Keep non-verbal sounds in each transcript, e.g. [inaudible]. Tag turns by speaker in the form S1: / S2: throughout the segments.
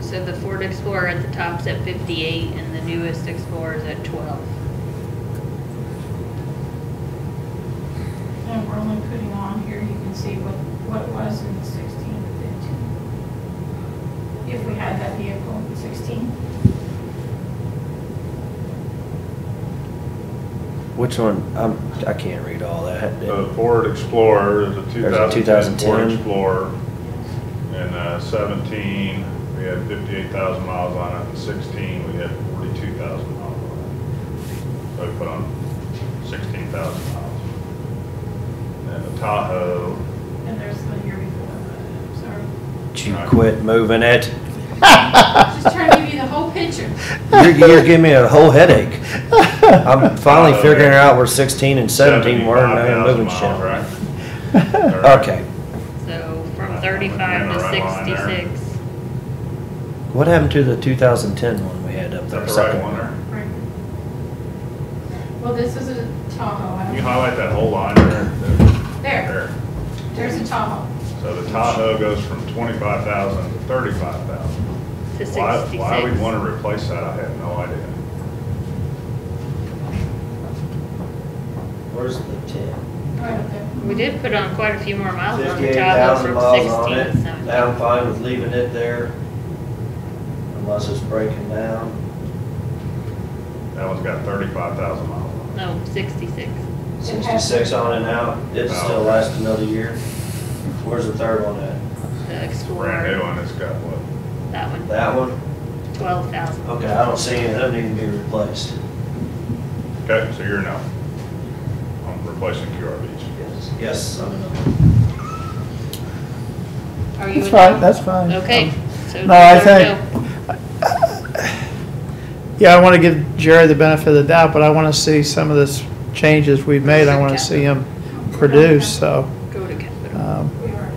S1: So the Ford Explorer at the top's at fifty-eight and the newest Explorer's at twelve.
S2: And we're only putting on here, you can see what, what it was in sixteen to fifteen. If we had that vehicle in sixteen,
S3: Which one? I'm, I can't read all that.
S4: The Ford Explorer, the
S3: There's a
S4: 2010 Ford Explorer,
S3: 2010.
S4: and uh, 17, we had 58,000 miles on it, and 16, we had 42,000 miles on it. So we put on 16,000 miles. And the Tahoe,
S2: and there's the year before, but, sorry.
S3: Did you quit moving it?
S2: Just trying to give you the whole picture.
S3: You're, you're giving me a whole headache.
S4: [laughs]
S3: I'm
S4: Oh,
S3: finally figuring out where 16 and 17 were and I'm
S4: 75,000
S3: moving
S4: miles,
S3: shit.
S4: right?
S3: [laughs] Okay.
S1: So
S4: Right,
S1: from
S4: I'm
S1: thirty-five
S4: in the right line
S1: to
S4: there.
S1: sixty-six.
S3: What happened to the 2010 one we had up
S4: Is
S3: there?
S4: that the right
S3: Second
S4: one there?
S2: Right. Well, this is a Tahoe, I
S4: Can you
S2: don't-
S4: highlight that whole line there?
S2: there,
S4: There.
S2: there's a Tahoe.
S4: So the Tahoe goes from 25,000 to 35,000.
S1: to
S4: Why, why we'd
S1: 66.
S4: want to replace that, I have no idea.
S5: Where's the ten?
S2: Right up there.
S1: We did put on quite a few more miles on the
S5: Fifty-eight
S1: Tahoe
S5: thousand
S1: from
S5: miles
S1: 16
S5: on
S1: to
S5: it.
S1: 17.
S5: I'm fine with leaving it there unless it's breaking down.
S4: That one's got thirty-five thousand miles on
S1: No, 66.
S5: Sixty-six on it now, it'd
S4: Oh,
S5: still last another year. Where's the third one
S1: The
S5: at?
S4: it. Brand new
S1: Explorer,
S4: one, it's got what,
S1: that one,
S5: That one?
S1: 12,000.
S5: Okay, I don't see it, that need to be replaced.
S4: okay, so you're now on replacing QRVs.
S5: Yes. Yes, I'm in.
S1: Are you
S6: That's
S1: in?
S6: fine, that's fine.
S1: Okay. so
S6: No, I
S1: there's our no.
S6: think- Yeah, I want to give Jerry the benefit of the doubt, but I want to see some of this changes we've made. I want to see him produce, so.
S1: Go to capital.
S6: um,
S2: We were,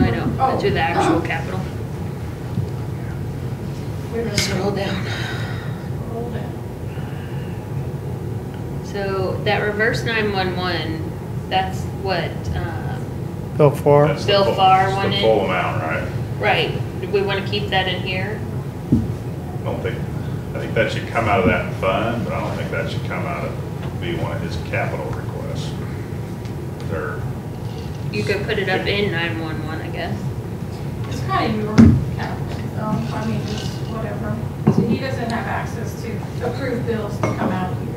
S1: I know,
S2: Oh.
S1: to the actual capital.
S2: we were.
S1: Scroll down.
S2: Hold it.
S1: So that reverse 911, that's what, um,
S6: Bill Farr,
S4: That's the
S1: Bill
S4: full-
S1: Farr
S4: it's
S1: wanted-
S4: The full amount, right?
S1: right, do we want to keep that in here?
S4: I don't think, I think that should come out of that fund, but I don't think that should come out of, be one of his capital requests. They're,
S1: You could put it up in 911, I guess.
S2: It's kind of your capital, so, I mean, it's whatever. So he doesn't have access to approved bills to come out of here,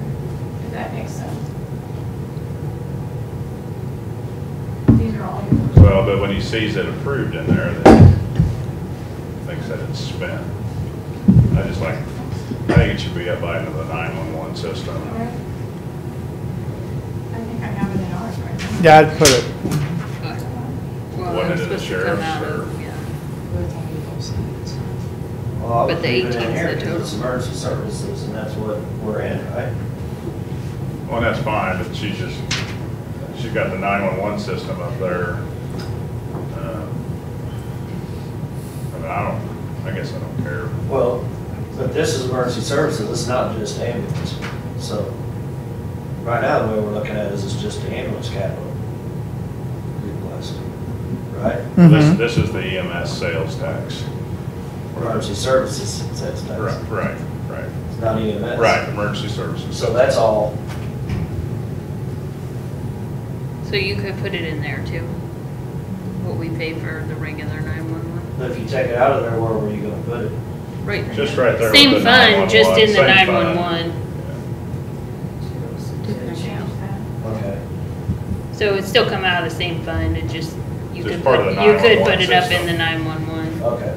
S2: if that makes sense. These are all yours.
S4: well, but when he sees it approved in there, then he thinks that it's spent. I just like, I think it should be up by another nine-one-one
S2: All
S4: system.
S2: right. I think I have it in ours right now.
S6: yeah, I'd put it,
S1: But- Well,
S4: One
S1: that's
S4: into the
S1: supposed to come
S4: sheriff's
S1: out
S4: or-
S1: of, yeah.
S5: Well, I would
S1: But the
S5: leave it in
S1: 18 is
S5: here
S1: the
S5: 'cause
S1: total.
S5: It's emergency services and that's what we're in, right?
S4: Well, that's fine, but she's just, she's got the nine-one-one system up there. Um, I mean, I don't, I guess I don't care.
S5: Well, but this is emergency services, it's not just ambulance, so, right now, the way we're looking at it is it's just the ambulance capital. request, Right?
S6: Mhm.
S4: This, this is the EMS sales tax.
S5: Emergency services, sales tax,
S4: Right, right, right,
S5: it's not EMS.
S4: right, emergency services.
S5: So that's all,
S1: So you could put it in there too, what we pay for the regular 911.
S5: but if you take it out of there, where were you gonna put it?
S1: Right.
S4: Just right there with
S1: Same
S4: the
S1: fund, just in the
S4: 911, same fund.
S1: 911.
S2: Should have changed that.
S5: Okay,
S1: So it'd still come out of the same fund, it just, you
S4: Just
S1: could,
S4: part of
S1: put-
S4: the
S1: you could
S4: 911
S1: put it up in
S4: system.
S1: the 911,
S5: okay.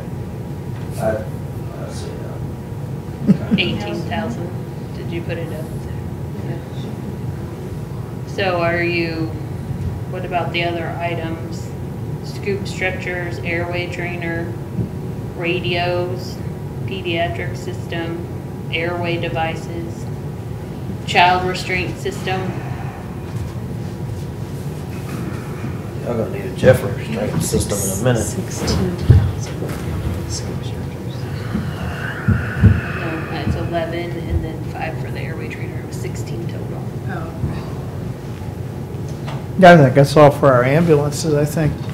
S5: I, I see now. Okay.
S1: 18,000. Did you put it up there? So are you, what about the other items? Scoop stretchers, airway trainer, radios, pediatric system, airway devices, child restraint system?
S3: I'm gonna need a Jeffrey restraint system in a minute.
S7: Sixteen thousand.
S1: No, it's eleven and then five for the airway trainer, it was sixteen total.
S6: yeah, I think that's all for our ambulances, I think.